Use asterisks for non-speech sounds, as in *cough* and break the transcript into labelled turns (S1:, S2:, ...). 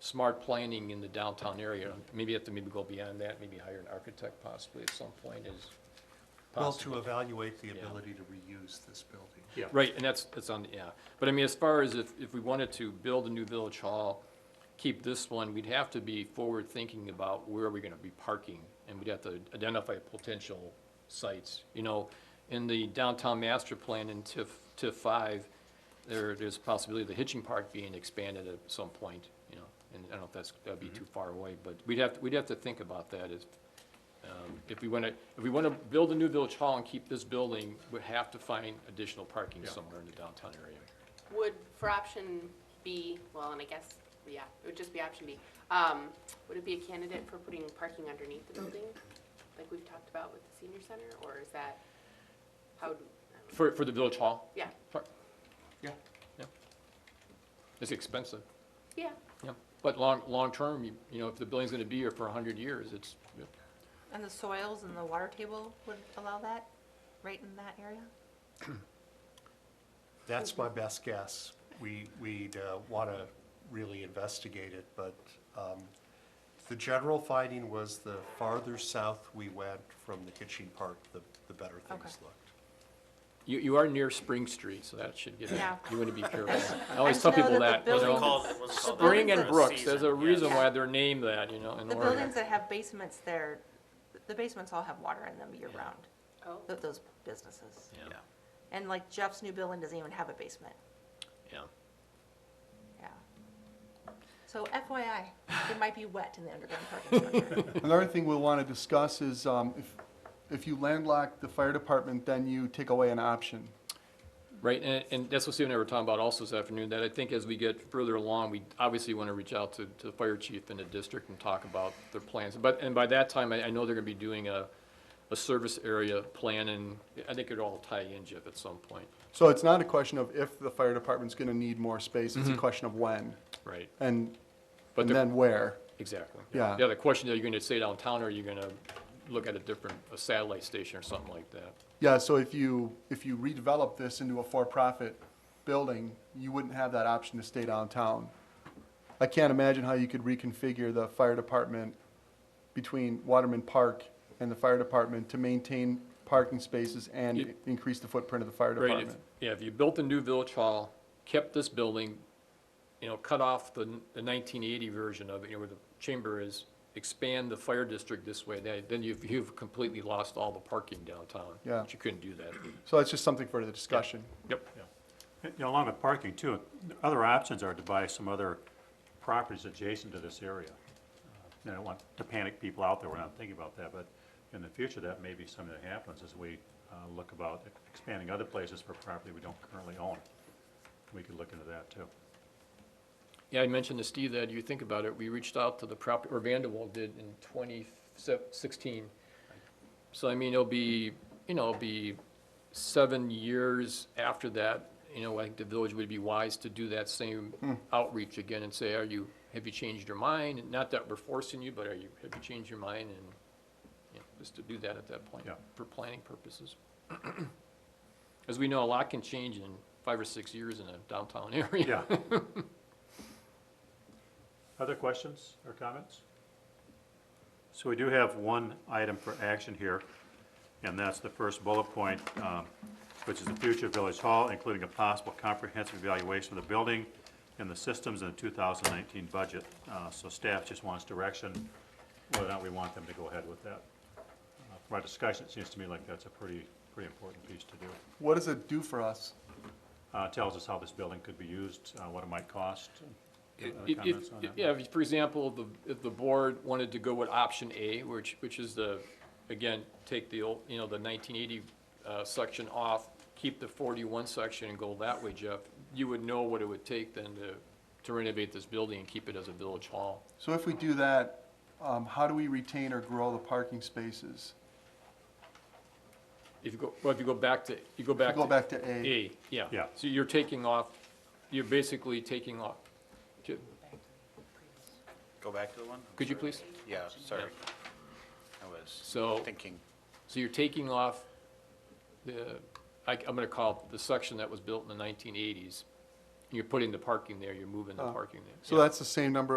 S1: smart planning in the downtown area. Maybe you have to maybe go beyond that, maybe hire an architect possibly at some point is
S2: Well,
S1: possible.
S2: to evaluate the
S1: Yeah.
S2: ability to reuse this building.
S3: Yeah.
S1: Right, and that's, that's on, yeah. But I mean, as far as if, if we wanted to build a new village hall, keep this one, we'd have to be forward-thinking about where are we gonna be parking? And we'd have to identify potential sites, you know? In the downtown master plan in TIF, TIF five, there, there's a possibility of the hitching park being expanded at some point, you know? And I don't know if that's, that'd be too far away, but we'd have, we'd have to think about that if, um, If we want to, if we want to build a new village hall and keep this building, we'd have to find additional parking somewhere in the downtown area.
S4: Would, for option B, well, and I guess, yeah, it would just be option B, um, would it be a candidate for putting parking underneath the building? Like we've talked about with the senior center, or is that, how, do- I don't know.
S1: For, for the village hall?
S4: yeah,
S1: Par-
S2: Yeah.
S1: Yeah. It's expensive,
S4: yeah,
S1: yeah. But long, long-term, you, you know, if the building's going to be here for 100 years, it's, yeah.
S5: And the soils and the water table would allow that, right in that area?
S2: That's my best guess. We, we'd want to really investigate it, but um, the general finding was the farther south we went from the kitchen part, the, the better things
S5: Okay.
S2: looked.
S1: you, you are near Spring Street, so that should get, you
S5: Yeah.
S1: want to be
S5: *laughs*
S1: careful. I always tell
S5: know
S1: people that,
S5: that the
S1: you
S5: building-
S1: know.
S3: Called- it wasn't called that
S1: Spring
S3: for
S1: and
S5: buildings-
S3: a
S1: Brooks, there's a
S3: season,
S1: reason
S5: yes.
S1: why they're named that, you know, in
S5: The
S1: Oregon.
S5: buildings that have basements there, the basements all have water in them year-round,
S4: oh,
S5: th- those businesses.
S1: Yeah,
S5: And like Jeff's new building doesn't even have a basement,
S1: yeah.
S5: yeah. So FYI, it might be wet in the underground parking structure.
S6: Another thing we'll want to discuss is um, if, if you landlock the fire department, then you take away an option.
S1: Right, and, and that's what Steve and I were talking about also this afternoon, that I think as we get further along, we obviously want to reach out to, to the fire chief in the district and talk about their plans. But, and by that time, I, I know they're gonna be doing a, a service area plan, and I think it'll all tie in, Jeff, at some point.
S6: So it's not a question of if the fire department's going to need more space, it's a question of when
S1: Right.
S6: and,
S1: Mm-hmm. But
S6: and
S1: the-
S6: then where.
S1: Exactly.
S6: Yeah.
S1: Yeah, the question, are you gonna stay downtown, or are you gonna look at a different, a satellite station or something like that?
S6: Yeah, so if you, if you redevelop this into a for-profit building, you wouldn't have that option to stay downtown. I can't imagine how you could reconfigure the fire department between Waterman Park and the fire department to maintain parking spaces and
S1: You-
S6: increase the footprint of the fire
S1: Right, if,
S6: department.
S1: yeah, if you built a new village hall, kept this building, you know, cut off the, the nineteen eighty version of it, you know, where the chamber is, expand the fire district this way, then, then you've, you've completely lost all the parking downtown.
S6: Yeah.
S1: But you couldn't do
S6: *clears throat*
S1: that.
S6: So that's just something for the discussion.
S1: Yep.
S3: You know, Along with parking too, other options are to buy some other properties adjacent to this area. Uh, I don't want to panic people out there, we're not thinking about that, but in the future, that may be something that happens as we uh, look about expanding other places for property we don't currently own. We could look into that too.
S1: Yeah, I mentioned to Steve that, you think about it, we reached out to the property, or Vanderwall did in twenty sixteen. So I mean, it'll be, you know, it'll be seven years after that, you know, I think the village would be wise to do that same outreach again and say, are you, have you changed your mind? And Not that we're forcing you, but are you, have you changed your mind? And, you know, just to do that at that point,
S3: Yeah.
S1: for planning purposes. *clears throat* As we know, a lot can change in five or six years in a downtown *laughs* area.
S3: Yeah. Other questions or comments? So we do have one item for action here, and that's the first bullet point, um, which is the future of Village Hall, including a possible comprehensive evaluation of the building and the systems in the 2019 budget. Uh, So staff just wants direction, whether or not we want them to go ahead with that. Uh, From our discussion, it seems to me like that's a pretty, pretty important piece to do.
S6: What does it do for us?
S3: Uh, Tells us how this building could be used, uh, what it might cost.
S1: If-
S3: Other
S1: if-
S3: comments on that?
S1: Yeah, if, for example, the, if the board wanted to go with option A, which, which is the, again, take the old, you know, the nineteen eighty, uh, section off, keep the forty-one section and go that way, Jeff, you would know what it would take then to, to renovate this building and keep it as a village hall.
S6: So if we do that, um, how do we retain or grow the parking spaces?
S1: If you go, well, if you go back to, you go back to.
S6: Go back to A.
S1: A, yeah.
S3: Yeah.
S1: So you're taking off, you're basically taking off, ju-
S7: Go back to the one?
S1: could you please?
S7: Yeah, sorry. I was
S1: So.
S7: thinking.
S1: So you're taking off the, I, am gonna call it the section that was built in the nineteen eighties. You're putting the parking there, you're moving the
S6: Oh.
S1: parking there.
S6: So
S1: Yeah.
S6: that's the same number